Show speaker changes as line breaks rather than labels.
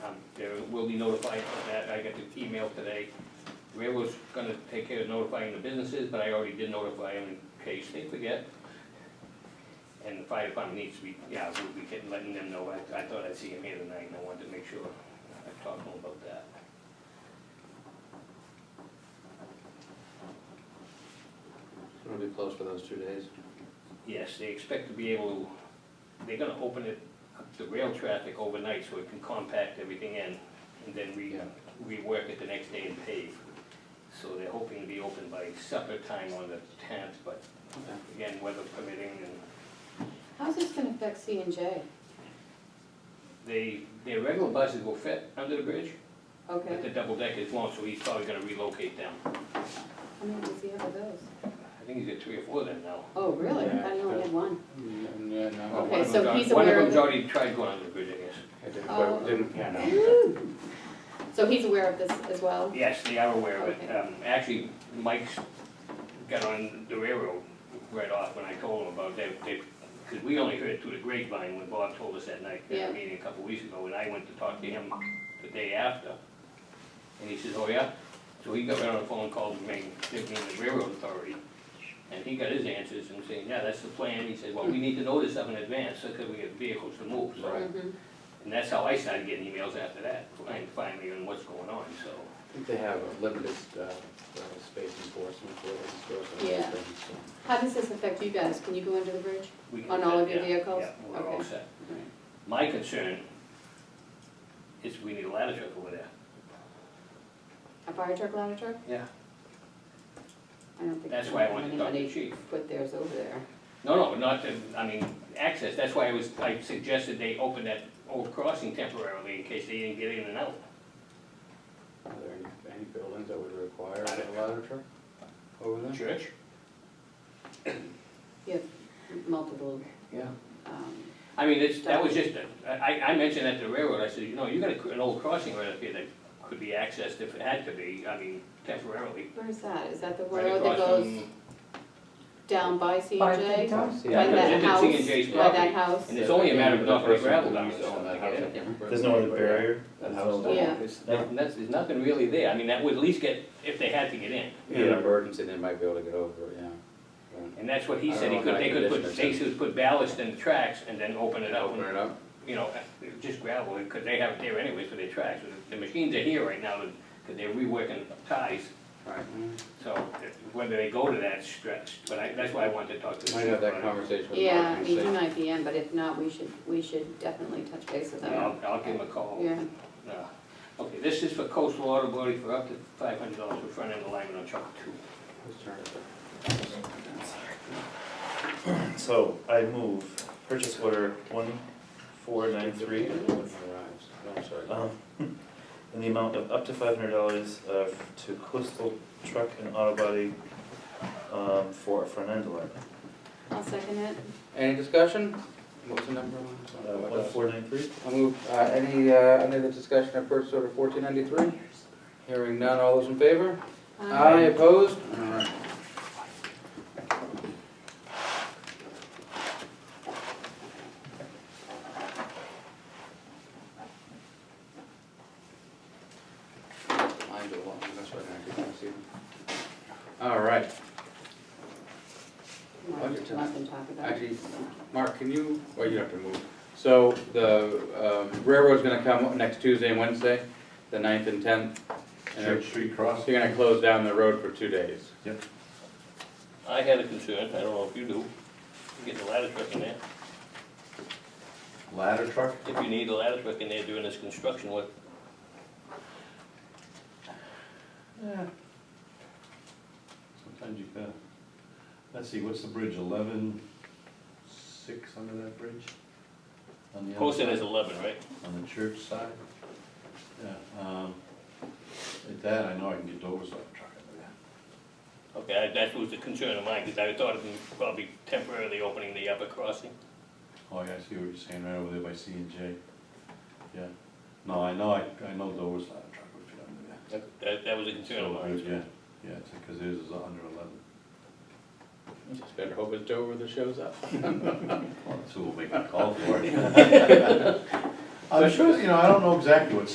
Um, will be notified of that, I got the email today. Railroad's gonna take care of notifying the businesses, but I already did notify them in case they forget. And the fire department needs to be, yeah, we'll be getting, letting them know, I, I thought I'd see him here tonight, and I wanted to make sure, I talked to him about that.
It'll be closed for those two days.
Yes, they expect to be able, they're gonna open it, up to rail traffic overnight so it can compact everything in and then re,
Yeah.
rework it the next day and pave. So they're hoping to be open by supper time on the tenth, but
Okay.
again, weather permitting and
How's this gonna affect C and J?
they, their regular buses will fit under the bridge, but the
Okay,
double deck is long, so he's probably gonna relocate them.
how many does he have of those?
I think he's got three or four of them now.
Oh, really? I didn't know he had one.
Yeah,
Well,
Mm, uh, no,
one of
Okay, so
them's
he's
al- One
aware
of
of
them's
it.
already tried going under the bridge, I guess.
I didn't,
Oh.
but didn't, yeah, no.
Woo! So he's aware of this as well?
Yes, they are aware of it.
Okay.
Um, Actually, Mike's got on the railroad right off when I told him about that, because we only heard it through the grapevine when Bob told us that night, at
Yeah.
a meeting a couple weeks ago, and I went to talk to him the day after. And he says, oh yeah? So he got right on the phone, and called the main, the main railroad authority, and he got his answers and saying, yeah, that's the plan. He said, well, we need to know this up in advance, so that we get vehicles to move, so.
Right.
Mhm.
And that's how I started getting emails after that, and finally, on what's going on, so.
I think they have a limited, uh, uh, space enforcement for those stores and
Yeah.
those things, so.
How does this affect you guys? Can you go under the bridge?
We can
On all of
set-
your
yeah,
vehicles?
Yeah, we're all
Okay.
set. My concern is we need a ladder truck over there.
A fire truck, ladder truck?
Yeah.
I don't think.
That's why I wanted to talk to the
anybody
chief.
Put theirs over there.
No, no, not, to- I mean, access, that's why I was, I suggested they open that old crossing temporarily in case they didn't get in and out.
Are there any, any buildings that would require
I don't
a ladder truck over there?
Church?
You have multiple,
Yeah.
um,
I mean, it's, that was just, a- I, I mentioned at the railroad, I said, you know, you got a- an old crossing right up here that could be accessed if it had to be, I mean, temporarily.
where's that? Is that the
Right
road that
across
goes
from-
down by C
By
and
the
J?
time-
Yeah,
By
I
It's
know.
that
in
house,
C&J's
by
property.
that house?
And it's only a matter of not putting gravel down,
Yeah.
so I get it.
There's no other barrier?
That house,
Yeah.
that house.
No.
And that's, there's nothing really there, I mean, that would at least get, if they had to get in.
In an emergency, they might be able to get over it, yeah. Right.
And that's what he
I
said, he
don't know
could, they
if
could
that
put,
condition
they
is-
could put ballast in the tracks and then open it up,
Open it
and,
up?
you know, just gravel, because they have it there anyways for their tracks. The machines are here right now, because they're reworking ties,
Right.
so whether they go to that stretch, but I, that's why I wanted to talk to. the
Might have that
supervisor.
conversation with Mark
Yeah, I
and
mean, he
see.
might be in, but if not, we should, we should definitely touch base with
Yeah,
him.
I'll, I'll give him a call.
Yeah,
Uh, Okay, this is for coastal water body for up to five hundred dollars for front end alignment on Chopper Two.
Who's turn is it?
So I move purchase order one four nine three Oh, um,
Arrives. No, I'm sorry.
in the amount of up to five hundred dollars uh, to Coastal Truck and Auto Body um, for a front end alignment.
I'll second it.
Any discussion? What was the number on?
Uh, One four nine three?
I move, uh, any, uh, any other discussion of purchase order fourteen ninety-three? Hearing none, all those in favor?
Um,
Opposed? All right. Mine do a lot, that's right, I can see them. All right, Budget time.
Nothing to talk about.
actually, Mark, can you, well, you have to move. So the um, railroad's gonna come next Tuesday and Wednesday, the ninth and tenth. and
Church Street Cross.
So you're gonna close down the road for two days.
I had a concern, I don't know if you do, get the ladder truck in there.
Ladder truck?
If you need a ladder truck in there during this construction, what,
Sometimes you gotta, let's see, what's the bridge, eleven, six under that bridge? On the other
posted as
side,
eleven, right?
On the church side? Yeah, um, at that, I know I can get Dover's ladder truck under there.
Okay, I- that was the concern of mine, because I thought of them probably temporarily opening the upper crossing.
Oh, yeah, I see what you're saying, right over there by C and J. Yeah, no, I know, I, I know Dover's ladder truck would fit under there.
That, that was a concern of
So,
mine.
Yeah, yeah, it's, cause theirs is under eleven,
Just better hope it's Dover that shows up.
well, that's who will make the call for it. I'm sure, you know, I don't know exactly what